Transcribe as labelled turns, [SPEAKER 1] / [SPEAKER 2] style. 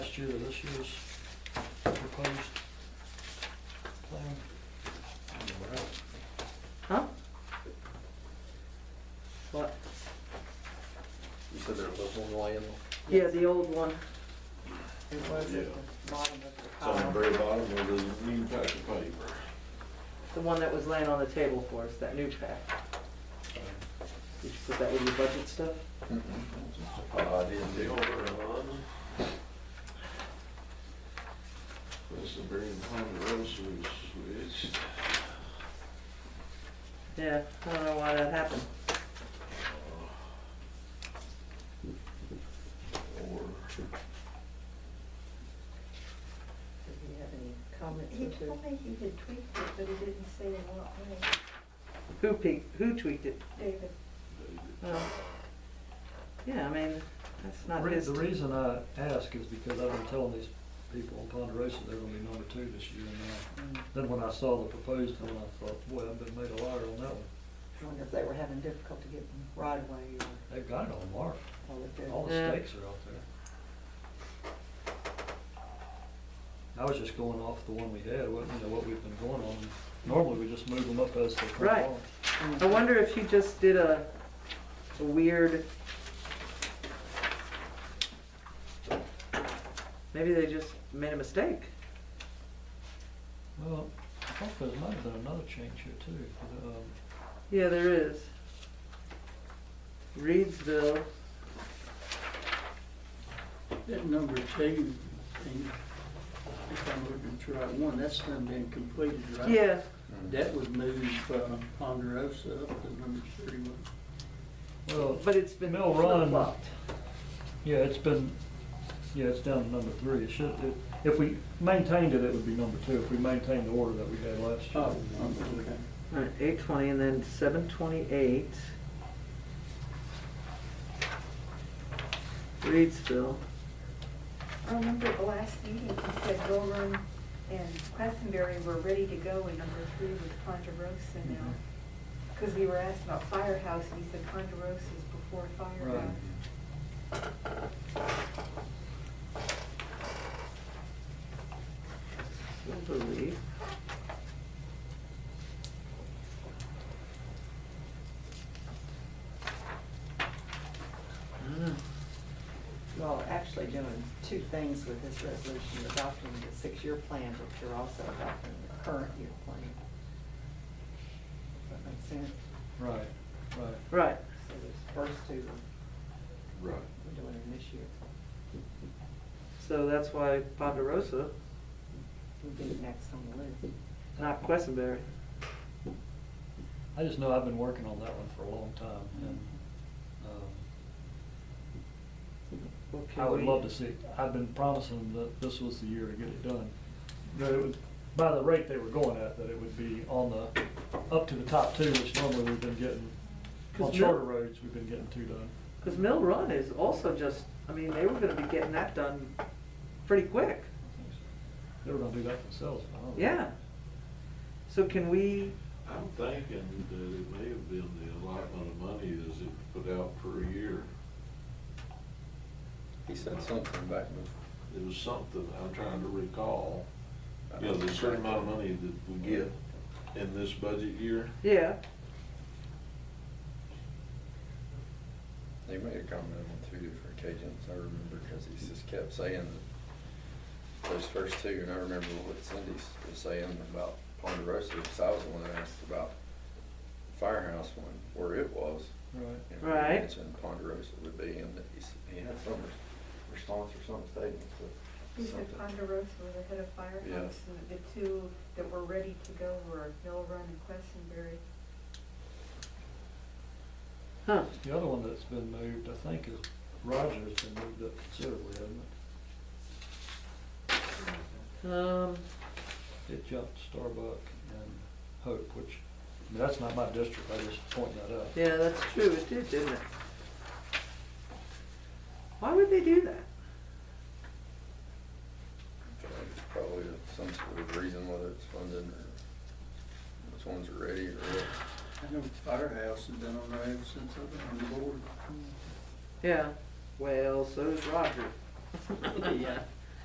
[SPEAKER 1] year or this year's proposed plan?
[SPEAKER 2] Huh? What?
[SPEAKER 3] You said there was one laying,
[SPEAKER 2] Yeah, the old one. It was
[SPEAKER 4] Yeah.
[SPEAKER 2] at the bottom of the
[SPEAKER 4] It's on the
[SPEAKER 2] pile.
[SPEAKER 4] very bottom of the new pack of paper.
[SPEAKER 2] The one that was laying on the table for us, that new pack. Did you put that with your budget stuff?
[SPEAKER 4] I didn't the older one. That's the very ponderosa switch.
[SPEAKER 2] Yeah, I don't know why that happened.
[SPEAKER 4] Or,
[SPEAKER 2] Did he have any comments
[SPEAKER 5] He told me he had tweaked it, but he didn't say in what way,
[SPEAKER 2] Who peak, who tweaked it?
[SPEAKER 5] David.
[SPEAKER 2] Oh. Yeah, I mean, that's not
[SPEAKER 1] Re-
[SPEAKER 2] his.
[SPEAKER 1] The reason I ask is because I've been telling these people in Ponderosa they're gonna be number two this year. And uh, then when I saw the proposed one, I thought, boy, I've been made a liar on that one.
[SPEAKER 6] I wonder if they were having difficulty getting right away or
[SPEAKER 1] They've got it on mark.
[SPEAKER 6] all they
[SPEAKER 1] All
[SPEAKER 6] do.
[SPEAKER 1] the
[SPEAKER 2] Yeah.
[SPEAKER 1] stakes are out there. I was just going off the one we had, what, you know, what we've been going on. Normally, we just move them up as they come
[SPEAKER 2] Right.
[SPEAKER 1] along.
[SPEAKER 2] I wonder if he just did a, a weird. Maybe they just made a mistake.
[SPEAKER 1] Well, I thought there might have been another change here too. 'cause, um,
[SPEAKER 2] Yeah, there is. Reedsville,
[SPEAKER 7] That number two thing, if I'm looking at the right one, that's done been completed, right?
[SPEAKER 2] yeah,
[SPEAKER 7] That would move uh, Ponderosa up to number three.
[SPEAKER 1] Well,
[SPEAKER 2] but it's been
[SPEAKER 1] Mill Run.
[SPEAKER 2] flip-flopped.
[SPEAKER 1] yeah, it's been, yeah, it's down to number three. It should, it- if we maintained it, it would be number two, if we maintained the order that we had last year.
[SPEAKER 7] Oh, okay.
[SPEAKER 2] All right, eight twenty and then seven twenty-eight. Reedsville,
[SPEAKER 5] I remember at the last meeting, he said Dolan and Questenberry were ready to go in number three with Ponderosa now. Because we were asked about Firehouse, and he said Ponderosa's before Firehouse.
[SPEAKER 2] Silver Leaf. Ah.
[SPEAKER 6] Well, actually doing two things with this resolution, You're adopting the six-year plan, but you're also adopting the current year plan. Does that make sense?
[SPEAKER 1] Right, right.
[SPEAKER 2] Right,
[SPEAKER 6] So those first two,
[SPEAKER 4] right.
[SPEAKER 6] we're doing in this year.
[SPEAKER 2] so that's why Ponderosa,
[SPEAKER 6] We'll be next on the list.
[SPEAKER 2] not Questenberry.
[SPEAKER 1] I just know I've been working on that one for a long time and, um,
[SPEAKER 2] Well, can
[SPEAKER 1] I would
[SPEAKER 2] we-
[SPEAKER 1] love to see, it. I've been promising that this was the year to get it done. That it would, by the rate they were going at, that it would be on the, up to the top two, which normally we've been getting, on
[SPEAKER 2] 'Cause Mill-
[SPEAKER 1] shorter roads, we've been getting two done.
[SPEAKER 2] Because Mill Run is also just, I mean, they were gonna be getting that done pretty quick,
[SPEAKER 1] They were gonna do that themselves, I don't know.
[SPEAKER 2] yeah. So can we,
[SPEAKER 4] I'm thinking that it may have been the allotment of money that's it put out per year.
[SPEAKER 3] He said something back before.
[SPEAKER 4] It was something, I'm trying to recall. You know, there's a certain amount of money that we get in this budget year.
[SPEAKER 2] yeah,
[SPEAKER 3] He made a comment on two different occasions, I remember, because he just kept saying that those first two, and I remember what Cindy was saying about Ponderosa, because I was the one that asked about Firehouse one, where it was.
[SPEAKER 1] Right.
[SPEAKER 3] And he
[SPEAKER 2] Right.
[SPEAKER 3] mentioned Ponderosa would be in, that he s- he had some res- response or some statement,
[SPEAKER 5] He
[SPEAKER 3] but
[SPEAKER 5] said
[SPEAKER 3] something.
[SPEAKER 5] Ponderosa was ahead of Firehouse, and the two that were ready to go were Mill Run and Questenberry.
[SPEAKER 2] huh,
[SPEAKER 1] The other one that's been moved, I think, is Rogers been moved up considerably, hasn't
[SPEAKER 2] um,
[SPEAKER 1] it? It jumped Starbuck and Hope, which, I mean, that's not my district, I just point that out.
[SPEAKER 2] yeah, that's true, it did, didn't it? Why would they do that?
[SPEAKER 3] I feel like it's Probably some sort of reason whether it's funded or which ones are ready or what.
[SPEAKER 7] I know Firehouse has been on there ever since I've been on the board.
[SPEAKER 2] Yeah, well, so does Roger.
[SPEAKER 7] Yeah.